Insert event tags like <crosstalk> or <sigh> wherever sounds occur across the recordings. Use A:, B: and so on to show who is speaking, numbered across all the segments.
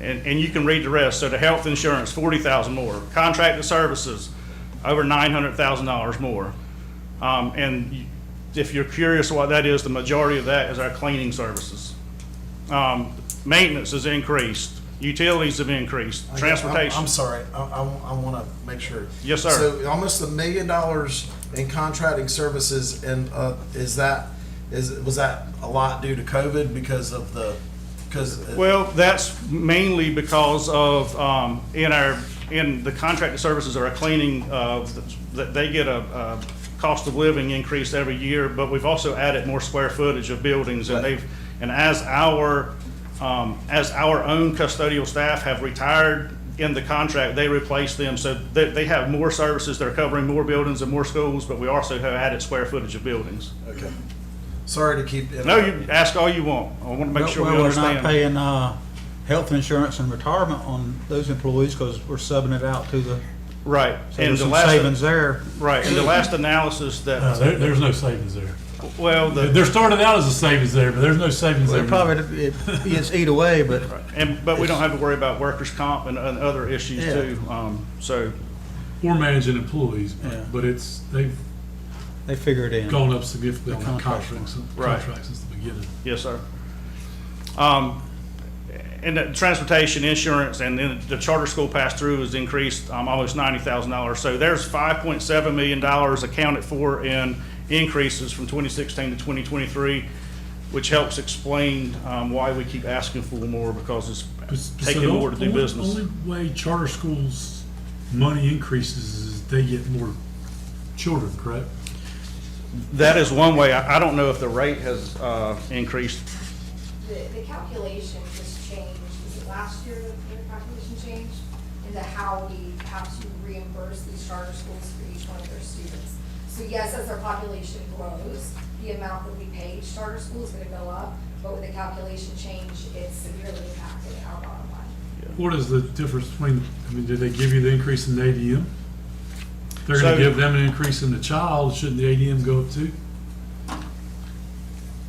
A: and, and you can read the rest. So the health insurance, forty thousand more. Contracted services, over nine hundred thousand dollars more. Um, and you- if you're curious what that is, the majority of that is our cleaning services. Um, maintenance has increased, utilities have increased,
B: I- I'm-
A: transportation.
B: I'm sorry, I, I, want to make sure.
A: Yes, sir.
B: So almost a million dollars in contracting services and, uh, is that, is, was that a lot due to COVID because of the, uh, because?
A: Well, that's mainly because of, um, in our, in the contracted services or our cleaning, uh, that they get a, a cost of living increase every year, but we've also added more square footage of buildings and
B: Right.
A: they've, and as our, um, as our own custodial staff have retired in the contract, they replace them, so they, they have more services, they're covering more buildings and more schools, but we also have added square footage of buildings.
B: Okay. Sorry to keep.
A: No, you ask all you want, I wanna make
C: Well,
A: sure we
C: well, We're
A: understand.
C: not paying, uh, health insurance and retirement on those employees because we're subbing it out to the,
A: Right.
C: so
A: And
C: there's
A: the
C: some
A: last-
C: savings there.
A: Right, and the last analysis
D: No,
A: that,
D: there, there's no savings there.
A: well, the,
D: There started out as a savings there, but there's no savings there.
C: It probably, it, it's eat away, but
A: and, but we don't have to worry about workers' comp and, and other issues
C: Yeah.
A: too. Um, so,
D: We're managing employees,
C: Yeah.
D: but, but it's, they've
C: they figure it in.
D: gone up significantly on
C: The
D: the
C: contract
D: contracts,
A: Right.
D: contracts since the beginning.
A: yes, sir. Um, and the transportation insurance and then the charter school pass-through has increased, um, almost ninety thousand dollars. So there's five point seven million dollars accounted for in increases from twenty sixteen to twenty twenty-three, which helps explain, um, why we keep asking for more because
D: But-
A: it's
D: so
A: taking
D: the
A: more to do
D: only-
A: business.
D: Only way charter schools' money increases is they get more children, correct?
A: That is one way. I, I don't know if the rate has, uh, increased.
E: The, the calculation just changed, was it last year that the calculation changed? Into how we have to reimburse these charter schools for each one of their students. So yes, as their population grows, the amount that we pay each charter school is gonna go up, but with the calculation change, it's severely impacted our bottom line.
D: What is the difference between, I mean, did they give you the increase in the ADM? They're
A: So-
D: gonna give them an increase in the child, shouldn't the ADM go up too?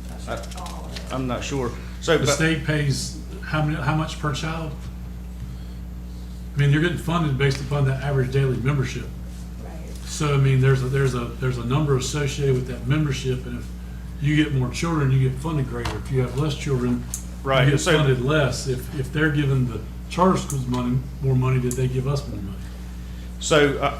E: That's what we're calling it.
A: I'm not sure. So,
D: The
A: but-
D: state pays how many, how much per child? I mean, you're getting funded based upon the average daily membership.
E: Right.
D: So, I mean, there's a, there's a, there's a number associated with that membership, and if you get more children, you get funded greater. If you have less children,
A: Right,
D: you get
A: so-
D: funded less. If, if they're giving the charter schools money, more money, did they give us more money?
A: so uh,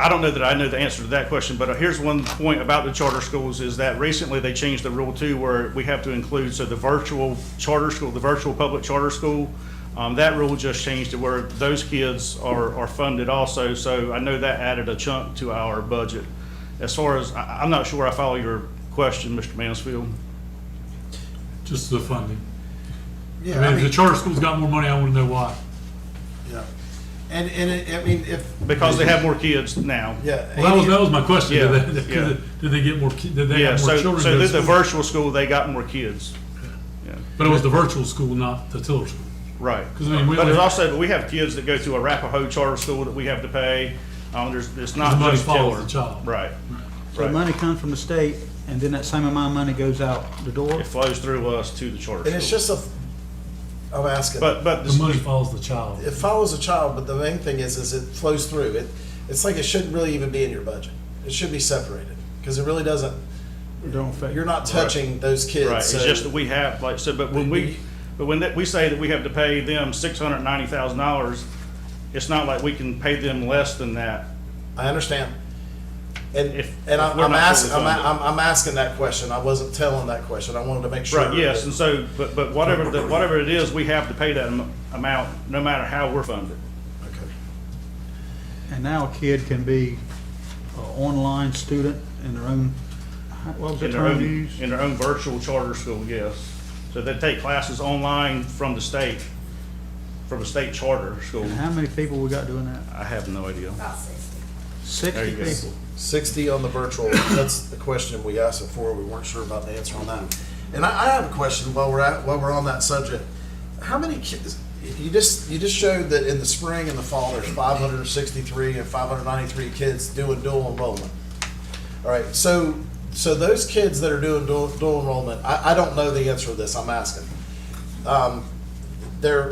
A: I don't know that I know the answer to that question, but uh, here's one point about the charter schools is that recently they changed the rule too, where we have to include, so the virtual charter school, the virtual public charter school, um, that rule just changed to where those kids are, are funded also. So I know that added a chunk to our budget. As far as, I, I'm not sure I follow your question, Mr. Mansfield.
D: Just the funding. I
B: Yeah,
D: mean, if the charter schools got more money, I wanna know why.
B: yeah. And, and it- I mean, if.
A: Because they have more kids now.
B: Yeah.
D: Well, that was, that was my question. Did
A: Yeah, yeah.
D: they, <laughs> did they- did they get more, ki- did they
A: Yeah,
D: have more
A: so,
D: children?
A: so
D: go to
A: through the
D: school?
A: virtual school, they got more kids. Yeah,
D: But it was the virtual school, not the Tiller school.
A: Right.
D: 'Cause I mean, we
A: But there's
D: only-
A: also, but we have kids that go to Arapahoe Charter School that we have to pay. Um, there's, it's not
D: The money
A: just
D: follows
A: Tiller.
D: the child.
A: Right.
C: So
A: Right.
C: money comes from the state and then that same amount of money goes out the door.
A: It flows through us to the charter
B: And it's
A: school.
B: just a, I'm asking.
A: But, but,
D: The money follows the child.
B: It follows a child, but the main thing is, is it flows through. It, it's like it shouldn't really even be in your budget. It should be separated, because it really doesn't,
C: It don't affect.
B: you're not touching those kids.
A: right, it's
B: so-
A: just that we have, like, so, but when we, but when that, we say that we have to pay them six hundred ninety thousand dollars, it's not like we can pay them less than that.
B: I understand. And,
A: If-
B: and
A: if
B: I'm,
A: we're
B: I'm
A: not
B: asking, I'm,
A: fully funded.
B: I'm, I'm asking that question. I wasn't telling that question. I wanted to make sure.
A: Right, yes, and so, but, but whatever, the- whatever it is, we have to pay that am- amount, no matter how we're funded.
B: Okay.
C: And now a kid can be an online student in their own, what was the
A: In their
C: term
A: own,
C: used?
A: in their own virtual charter school, yes. So they take classes online from the state, from a state charter school.
C: And how many people we got doing that?
A: I have no idea.
E: About sixty.
C: Sixty
A: you go.
C: people.
B: 60 on the virtual, that's the question we asked before, we weren't sure about the answer on that. And I, I have a question while we're at, while we're on that subject. How many kids, you just, you just showed that in the spring and the fall, there's 563 and 593 kids doing dual enrollment. All right, so, so those kids that are doing dual, dual enrollment, I, I don't know the answer to this, I'm asking. Um, They're,